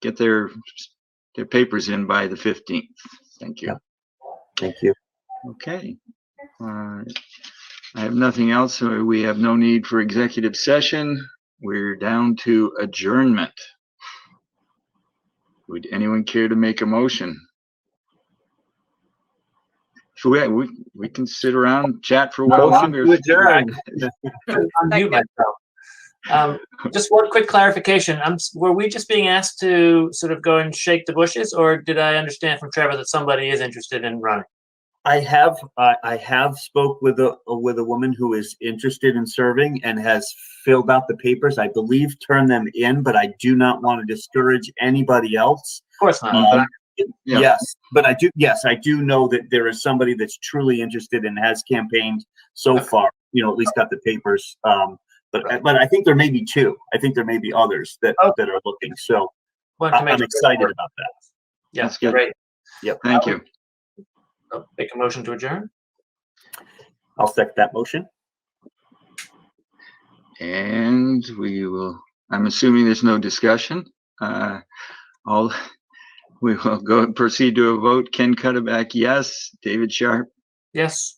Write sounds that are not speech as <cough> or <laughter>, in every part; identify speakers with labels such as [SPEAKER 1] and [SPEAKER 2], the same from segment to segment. [SPEAKER 1] get their, their papers in by the 15th. Thank you.
[SPEAKER 2] Yeah. Thank you.
[SPEAKER 1] Okay. Uh, I have nothing else. so We have no need for executive session. We're down to adjournment. Would anyone care to make a motion? So we, we, we can sit around, chat for a while
[SPEAKER 3] Motion
[SPEAKER 1] longer.
[SPEAKER 3] to adjourn. Unmute myself.
[SPEAKER 4] Um, just one quick clarification. Um, were we just being asked to sort of go and shake the bushes, or did I understand from Trevor that somebody is interested in running?
[SPEAKER 2] I have I I have spoke with a with a woman who is interested in serving and has filled out the papers. I believe turned them in, but I do not want to discourage anybody else.
[SPEAKER 4] Of course not.
[SPEAKER 2] Um,
[SPEAKER 4] but
[SPEAKER 1] Yeah.
[SPEAKER 2] Yes, but I do. Yes, I do know that there is somebody that's truly interested and has campaigned so
[SPEAKER 4] Okay.
[SPEAKER 2] far. You know, at least got the papers. Um, but but I think there may be two. I think there may be others that
[SPEAKER 4] Okay.
[SPEAKER 2] that are looking. So
[SPEAKER 4] I wanted
[SPEAKER 2] I,
[SPEAKER 4] to make
[SPEAKER 2] I'm
[SPEAKER 4] sure-
[SPEAKER 2] excited about that.
[SPEAKER 4] Yeah,
[SPEAKER 1] That's good.
[SPEAKER 4] great.
[SPEAKER 1] Thank you.
[SPEAKER 4] I'll Make a motion to adjourn.
[SPEAKER 2] I'll second that motion.
[SPEAKER 1] And we will, I'm assuming there's no discussion. Uh, all, <laughs> we will go and proceed to a vote. Ken Cutterback, yes. David Sharp,
[SPEAKER 4] Yes.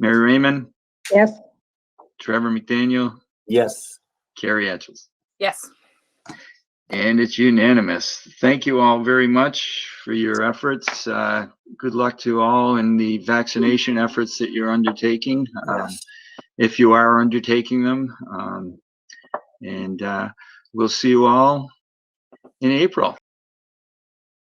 [SPEAKER 1] Mary Raymond,
[SPEAKER 5] Yes.
[SPEAKER 1] Trevor McDaniel,
[SPEAKER 2] Yes.
[SPEAKER 1] Carrie Etchels.
[SPEAKER 5] Yes.
[SPEAKER 1] And it's unanimous. Thank you all very much for your efforts. Uh, good luck to all in the vaccination efforts that you're undertaking. um, If you are undertaking them, um, and, uh, we'll see you all in April.